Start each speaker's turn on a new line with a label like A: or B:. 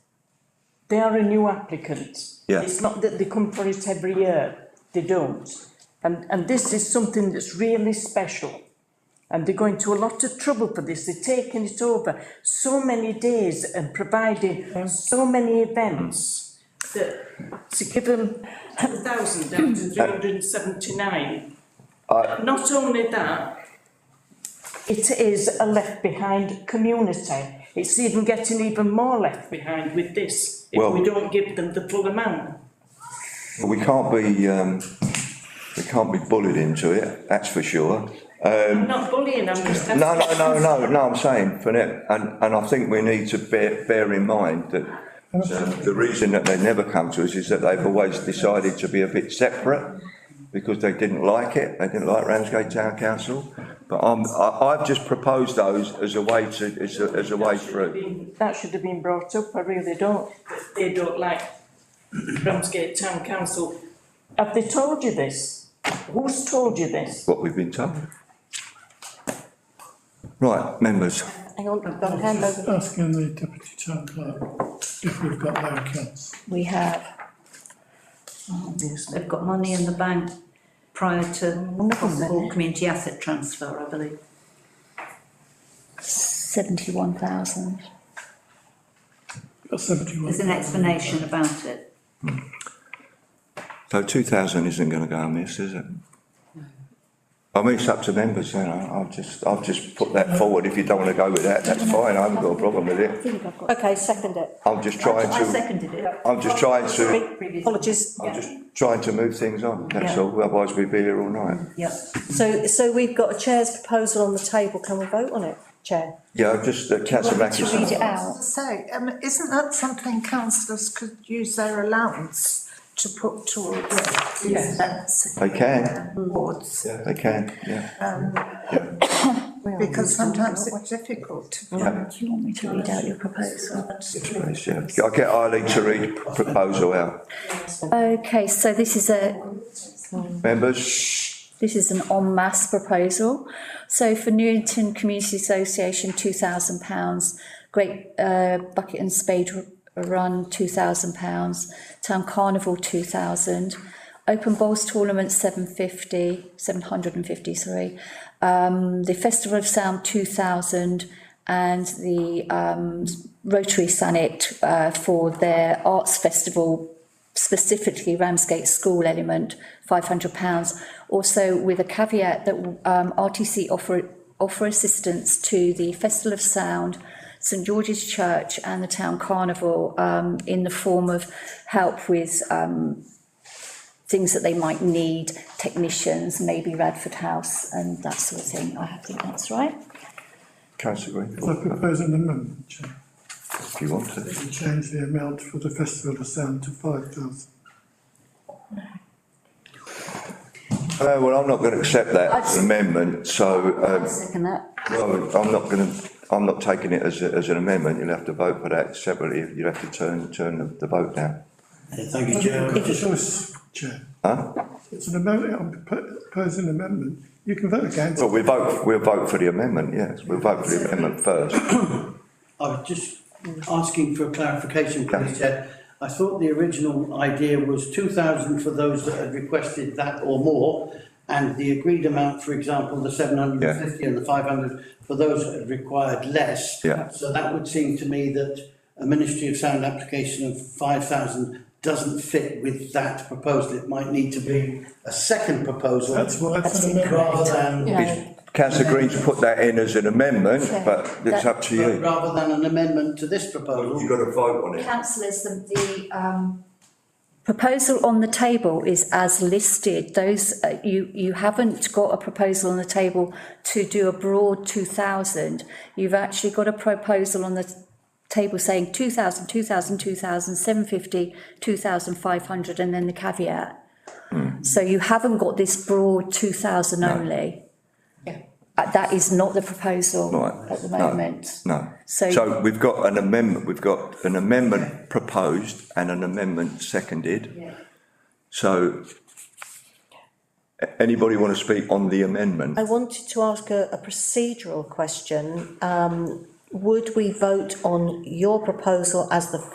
A: They are a new applicant.
B: Yeah.
A: It's not that they come for it every year, they don't. And, and this is something that's really special. And they're going to a lot of trouble for this, they're taking it over so many days and providing so many events. That, to give them a thousand down to three hundred and seventy-nine. Not only that, it is a left behind community. It's even getting even more left behind with this, if we
B: Well-
A: don't give them the full amount.
B: But We can't be, um, we can't be bullied into it, that's for sure.
A: I'm not bullying, I'm just.
B: No, no, no, no, no, I'm saying, for now, and, and I think we need to bear, bear in mind that um, the reason that they never come to us is that they've always decided to be a bit separate because they didn't like it, they didn't like Ramsgate Town Council. But I'm, I, I've just proposed those as a way to, as a, as a way through.
A: That should have been brought up, I really don't. They don't like Ramsgate Town Council. Have they told you this? Who's told you this?
B: What we've been told. Right, members,
C: Hang on, we've got a hand over.
D: Asking the deputy town clerk uh, if we've got their accounts.
C: We have.
E: Yes, they've got money in the bank prior to possible community asset transfer, I believe.
C: Seventy-one thousand.
D: Got seventy-one.
E: There's an explanation about it.
B: so two thousand isn't gonna go amiss, is it? I mean, it's up to members, you know, I've just, I've just put that forward, if you don't wanna go with that, that's fine, I haven't got a problem with it.
C: Okay, second it.
B: I'm just trying
E: I
B: to,
E: seconded it.
B: I'm just trying to,
C: Apologies.
B: I'm just trying to move things on, that's all, otherwise we'd be here all night.
E: Yep.
C: So, so we've got a chair's proposal on the table. Can we vote on it, Chair?
B: Yeah, I've just, uh, councillor
C: To read it
B: Mackison,
C: out.
F: So, um, isn't that something councillors could use their allowance to put towards events
B: they can,
F: awards?
B: yeah, they can, yeah.
C: Uh,
F: Because sometimes it's difficult to
B: Yeah.
F: find.
C: To read out your proposal.
B: Yes, please, yeah. I'll get Eileen to read p- proposal out.
G: Okay, so this is a,
B: Members,
G: this is an en masse proposal. So for Newington Community Association, two thousand pounds, Great uh, Bucket and Spade Run, two thousand pounds, Town Carnival, two thousand, Open Bowls Tournament, seven fifty, seven hundred and fifty, sorry. Um, the Festival of Sound, two thousand, and the um, Rotary Sanet uh, for their arts festival specifically Ramsgate School element, five hundred pounds. Also with a caveat that um, RTC offer offer assistance to the Festival of Sound, St George's Church, and the Town Carnival um, in the form of help with um, things that they might need, technicians, maybe Radford House, and that sort of thing. I think that's right.
B: councillor Green,
D: So I propose an amendment, Chair,
B: if you want to.
D: to change the amount for the Festival of Sound to five thousand.
B: Uh, well, I'm not going to accept that amendment, so, um,
E: Second that.
B: well, I'm not going to, I'm not taking it as, a- as an amendment, you'll have to vote for that separately, you'll have to turn, turn the- the vote down.
H: Yeah, Thank you, Chair.
D: It's a choice, Chair.
B: Huh?
D: It's an amendment, I'm propo- proposing an amendment. You can vote against.
B: Well, we vote, we'll vote for the amendment, yes, we'll vote for the amendment first.
H: I was just asking for clarification, please, Chair. I thought the original idea was two thousand for those that had requested that or more, and the agreed amount, for example, the seven hundred and fifty and the five hundred, for those that had required less.
B: Yeah.
H: So that would seem to me that a Ministry of Sound application of five thousand doesn't fit with that proposal. It might need to be a second proposal.
D: That's why it's an amendment.
H: Rather than.
B: It's- Councillor Green's put that in as an amendment, but it's up to you.
H: Rather than an amendment to this proposal.
B: got to vote on
G: councillors, the, the, um. Proposal on the table is as listed, those, uh, you, you haven't got a proposal on the table to do a broad two thousand. You've actually got a proposal on the table saying two thousand, two thousand, two thousand, seven fifty, two thousand five hundred, and then the caveat.
B: Hmm.
G: So you haven't got this broad two thousand only. Yeah. that is not the proposal
B: Right.
G: at the
B: No.
G: moment.
B: No.
G: So-
B: So we've got an amendment, we've got an amendment proposed and an amendment seconded. So a- anybody want to speak on the amendment?
C: I wanted to ask a, a procedural question. Um, would we vote on your proposal as the